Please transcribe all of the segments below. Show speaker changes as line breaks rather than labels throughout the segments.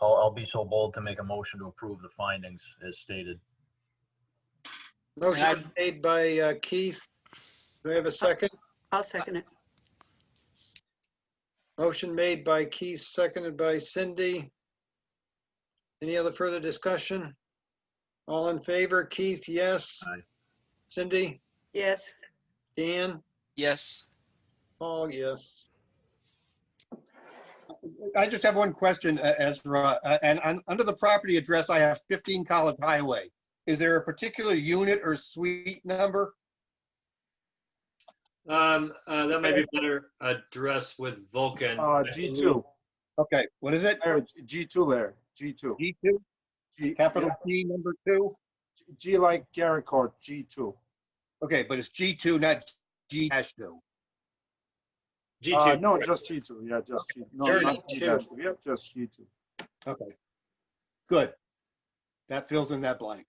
I'll, I'll be so bold to make a motion to approve the findings as stated.
Motion is made by uh, Keith. Do we have a second?
I'll second it.
Motion made by Keith, seconded by Cindy. Any other further discussion? All in favor? Keith, yes.
Aye.
Cindy,
Yes,
Dan,
Yes.
Paul, yes.
I just have one question, uh, Ezra, uh, and on, under the property address, I have 15 College Highway. Is there a particular unit or suite number?
Um, uh, that might be better addressed with Vulcan.
Uh, G2,
Okay, what is it?
Larry, G2, Larry, G2.
G2,
G-
capital
yeah,
G, number two?
G like Garrett Court, G2.
Okay, but it's G2, not G dash two.
G
Uh,
two.
No, just G2, yeah, just G, no,
Sure,
not
G2.
G-2, yeah, just G2.
Okay. Good. That fills in that blank.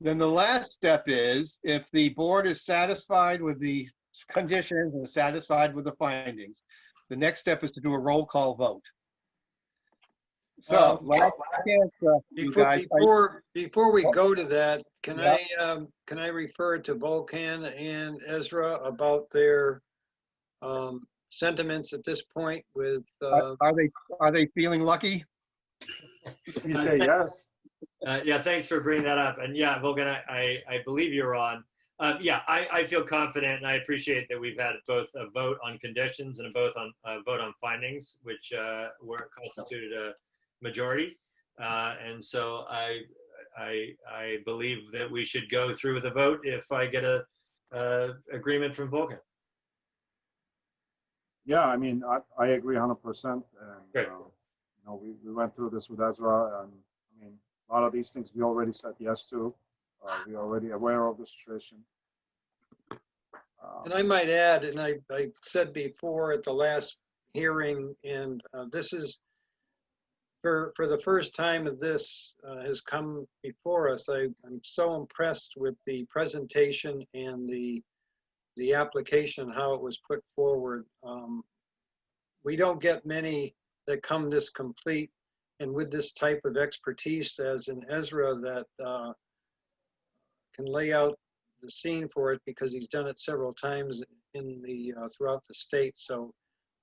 Then the last step is if the board is satisfied with the conditions and satisfied with the findings, the next step is to do a roll call vote.
Um,
So, last chance, uh, you
Before,
guys, I-
before, before we go to that, can
Yeah.
I, um, can I refer to Vulcan and Ezra about their um, sentiments at this point with, uh,
are are they, are they feeling lucky?
If you say yes,
Uh, yeah, thanks for bringing that up. And yeah, Vulcan, I, I, I believe you're on. Uh, yeah, I, I feel confident and I appreciate that we've had both a vote on conditions and a both on a vote on findings, which uh, were constituted a majority. Uh, and so I, I, I believe that we should go through with a vote if I get a, uh agreement from Vulcan.
yeah, I mean, I, I agree 100%. and,
Great.
uh, You know, we, we went through this with Ezra, and, I mean, a lot of these things we already said yes to. Uh, We're already aware of the situation. Uh,
And I might add, and I, I said before at the last hearing, and uh, this is, for, for the first time of this uh, has come before us, I, I'm so impressed with the presentation and the, the application, how it was put forward. Um, We don't get many that come this complete and with this type of expertise as in Ezra that uh, can lay out the scene for it because he's done it several times in the, uh, throughout the state. So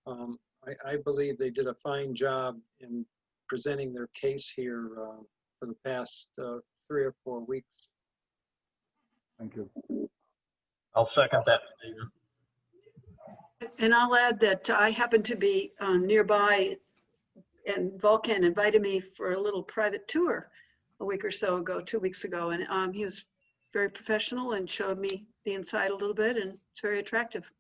um, I, I believe they did a fine job in presenting their case here uh, for the past uh, three or four weeks.
Uh, Thank you.
I'll second that. David.
and I'll add that I happened to be uh, nearby and Vulcan invited me for a little private tour a week or so ago, two weeks ago, and um, he was very professional and showed me the inside a little bit and it's very attractive.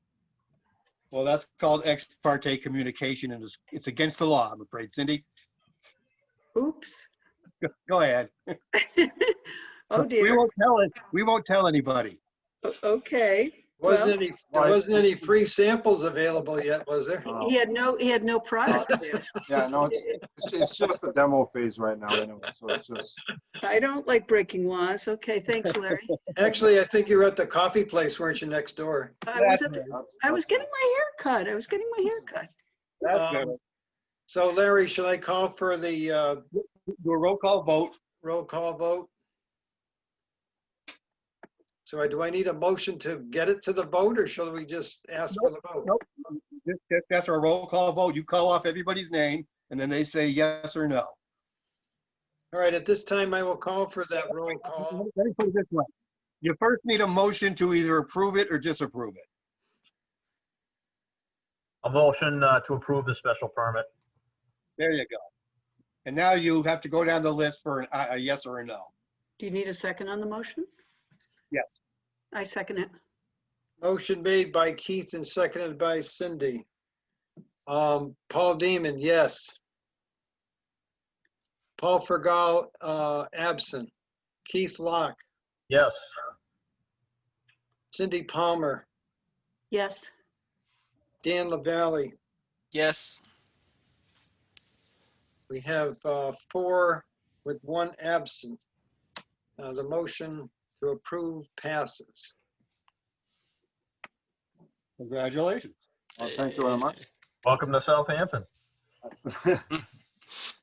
Well, that's called ex parte communication and it's, it's against the law, I'm afraid. Cindy,
Oops.
go ahead.
Oh
We
dear.
won't tell it, we won't tell anybody.
O- Okay.
Wasn't
Well-
any, there wasn't any free samples available yet, was there?
Uh,
He had no, he had no product there.
Yeah, no, it's, it's- it's just the demo phase right now anyway, so it's just.
I don't like breaking laws. Okay, thanks, Larry.
Actually, I think you were at the coffee place, weren't you, next door?
I was at the,
that's-
I was
that's-
getting my hair cut. I was getting my hair cut.
That's
Um,
good.
So Larry, should I call for the uh,
Do a roll call vote.
roll call vote? So I- do I need a motion to get it to the vote, or shall we just ask for the vote?
Nope. Just, just after a roll call vote, you call off everybody's name, and then they say yes or no.
All right, at this time, I will call for that roll
Let
call.
me put it this way. You first need a motion to either approve it or disapprove it.
A motion uh, to approve the special permit.
There you go. And now you have to go down the list for an- a, a yes or a no.
Do you need a second on the motion?
Yes.
I second it.
Motion made by Keith and seconded by Cindy. Um, Paul Demon, yes. Paul Fergal, uh, absent. Keith Locke,
Yes,
Cindy Palmer,
Yes,
Dan LaValley.
Yes.
We have uh, four with one absent. Uh, The motion to approve passes.
Congratulations.
Well, thank you very much.
welcome to Southampton.